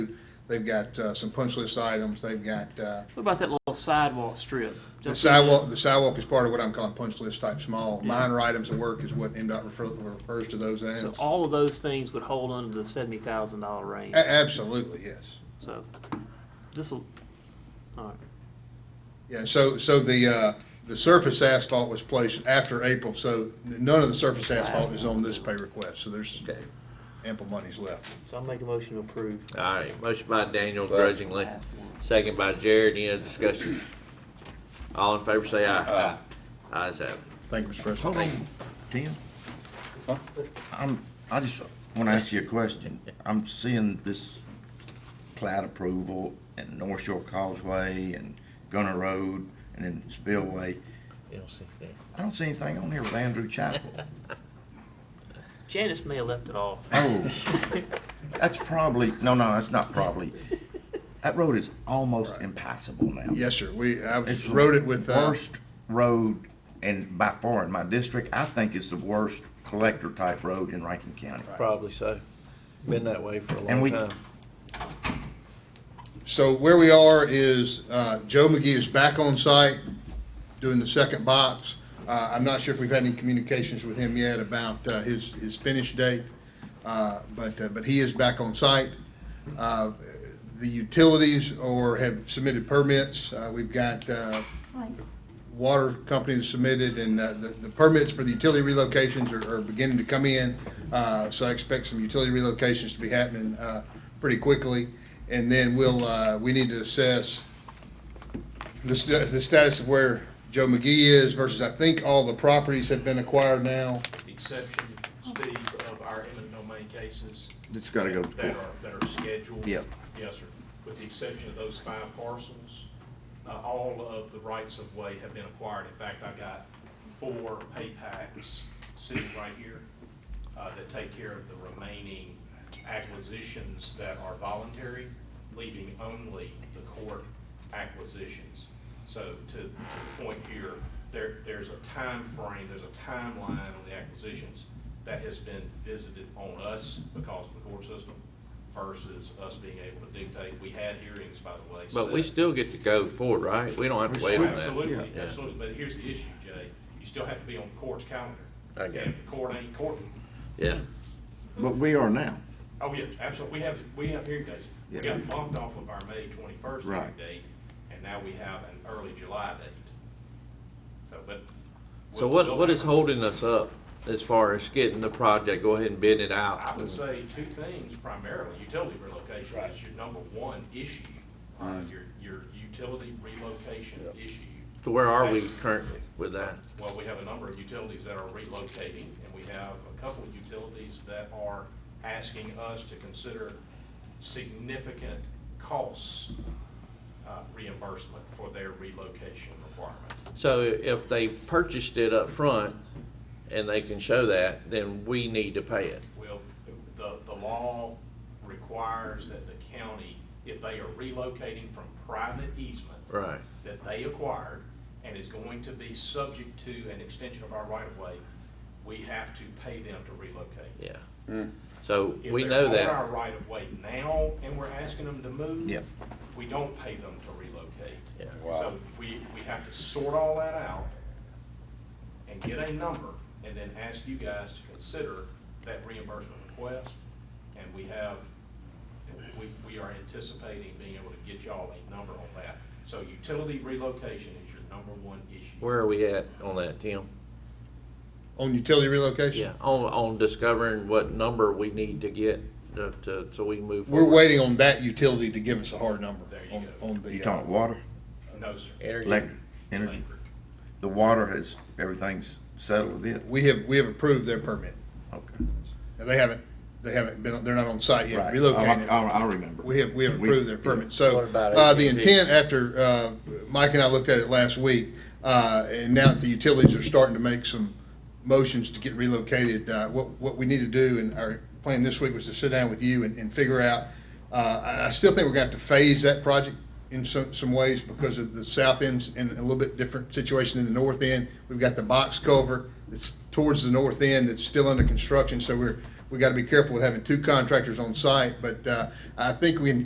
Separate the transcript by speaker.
Speaker 1: They've got uh, some punch list items. They've got uh,
Speaker 2: What about that little sidewalk strip?
Speaker 1: the
Speaker 2: Just-
Speaker 1: sidewalk. The sidewalk is part of what I'm calling punch list type small. Minor items of work is what MDOT refer, refers to those as.
Speaker 2: So all of those things would hold under the seventy thousand dollar range.
Speaker 1: A- absolutely, yes.
Speaker 2: So this will, all right.
Speaker 1: Yeah, so, so the, uh, the surface asphalt was placed after April, so n- none of the surface asphalt is on this pay request, so there's
Speaker 3: Okay.
Speaker 1: ample monies left.
Speaker 2: So I'll make a motion to approve.
Speaker 3: All right, motion by Daniel grudgingly, second by Jared, any other discussion? All in favor say aye. Aye. Ayes have it.
Speaker 1: Thank you, Mr.
Speaker 4: Hold
Speaker 1: President.
Speaker 4: on, Tim. I'm, I just want to ask you a question. I'm seeing this cloud approval and North Shore Causeway and Gunner Road and then Spillway.
Speaker 3: You don't see that.
Speaker 4: I don't see anything on here with Andrew Chapel.
Speaker 2: Janice may have left it off.
Speaker 4: Oh, that's probably, no, no, that's not probably. That road is almost impassable now.
Speaker 1: Yes, sir, we, I was-
Speaker 4: It's the
Speaker 1: wrote it with, uh,
Speaker 4: Worst road and by far in my district, I think it's the worst collector type road in Rankin County.
Speaker 5: Probably so. Been that way for a
Speaker 4: And
Speaker 5: long
Speaker 4: we-
Speaker 5: time.
Speaker 1: so where we are is, uh, Joe McGee is back on site doing the second box. Uh, I'm not sure if we've had any communications with him yet about, uh, his, his finish date, uh, but, uh, but he is back on site. Uh, The utilities or have submitted permits, uh, we've got, uh, water companies submitted, and uh, the the permits for the utility relocations are- are beginning to come in. Uh, So I expect some utility relocations to be happening uh, pretty quickly. And then we'll, uh, we need to assess the sta- the status of where Joe McGee is versus, I think, all the properties have been acquired now.
Speaker 6: the exception, Steve, of our eminent domain cases
Speaker 4: It's gotta go to
Speaker 6: that
Speaker 4: court.
Speaker 6: are, that are scheduled.
Speaker 4: Yep.
Speaker 6: Yes, sir. With the exception of those five parcels, uh, all of the rights of way have been acquired. In fact, I got four pay packs sitting right here, uh, that take care of the remaining acquisitions that are voluntary, leaving only the court acquisitions. So to the point here, there, there's a time frame, there's a timeline on the acquisitions that has been visited on us because of the court system versus us being able to dictate. We had hearings, by the way.
Speaker 3: But we
Speaker 6: set.
Speaker 3: still get to go forward, right? We don't have to wait on that.
Speaker 6: Absolutely,
Speaker 3: Yeah.
Speaker 6: absolutely. But here's the issue, Jay. You still have to be on the court's calendar.
Speaker 3: I got
Speaker 6: And
Speaker 3: it.
Speaker 6: if the court ain't courting,
Speaker 3: Yeah,
Speaker 4: But we are now.
Speaker 6: Oh, yeah, absolutely. We have, we have hearing dates. We
Speaker 4: Yeah.
Speaker 6: got bumped off of our May twenty-first
Speaker 4: Right.
Speaker 6: hearing date, and now we have an early July date. So, but.
Speaker 3: so
Speaker 6: we'll-
Speaker 3: what,
Speaker 6: we'll
Speaker 3: what is
Speaker 6: have-
Speaker 3: holding us up as far as getting the project, go ahead and bid it
Speaker 6: I
Speaker 3: out?
Speaker 6: would say two things primarily. Utility relocation is your number one issue, uh, your, your utility relocation issue.
Speaker 3: So where are we currently with that?
Speaker 6: Well, we have a number of utilities that are relocating, and we have a couple of utilities that are asking us to consider significant costs uh, reimbursement for their relocation requirement.
Speaker 3: So if they purchased it up front and they can show that, then we need to pay it.
Speaker 6: Well, the, the law requires that the county, if they are relocating from private easement
Speaker 3: Right.
Speaker 6: that they acquired and is going to be subject to an extension of our right-of-way, we have to pay them to relocate.
Speaker 3: Yeah.
Speaker 1: Mm.
Speaker 3: So
Speaker 6: If
Speaker 3: we
Speaker 6: they're
Speaker 3: know
Speaker 6: on
Speaker 3: that.
Speaker 6: our right of way now, and we're asking them to move.
Speaker 4: Yeah.
Speaker 6: We don't pay them to relocate.
Speaker 3: Yeah.
Speaker 6: So we, we have to sort all that out and get a number, and then ask you guys to consider that reimbursement request. And we have, we, we are anticipating being able to get y'all a number on that. So utility relocation is your number one issue.
Speaker 3: Where are we at on that, Tim?
Speaker 1: On utility relocation?
Speaker 3: Yeah, on, on discovering what number we need to get to, to, so we can move
Speaker 1: We're
Speaker 3: forward.
Speaker 1: waiting on that utility to give us a hard number.
Speaker 6: There you
Speaker 1: on-
Speaker 6: go.
Speaker 1: On the.
Speaker 4: You
Speaker 1: uh,
Speaker 4: talking water,
Speaker 6: No, sir.
Speaker 3: Energy.
Speaker 4: electric, energy? The water has, everything's settled with it?
Speaker 1: We have, we have approved their permit.
Speaker 4: Okay.
Speaker 1: Now, they haven't, they haven't been, they're not on site yet,
Speaker 4: Right. Oh,
Speaker 1: relocated.
Speaker 4: I, I I remember.
Speaker 1: We have, we have
Speaker 4: We-
Speaker 1: approved their permit. So,
Speaker 3: What about
Speaker 1: uh, the
Speaker 3: AT&T?
Speaker 1: intent after, uh, Mike and I looked at it last week, uh, and now that the utilities are starting to make some motions to get relocated, uh, what, what we need to do and our plan this week was to sit down with you and, and figure out, uh, I, I still think we're gonna have to phase that project in some, some ways because of the south end's in a little bit different situation in the north end. We've got the box culvert that's towards the north end that's still under construction, so we're, we gotta be careful with having two contractors on site, but, uh, I think we can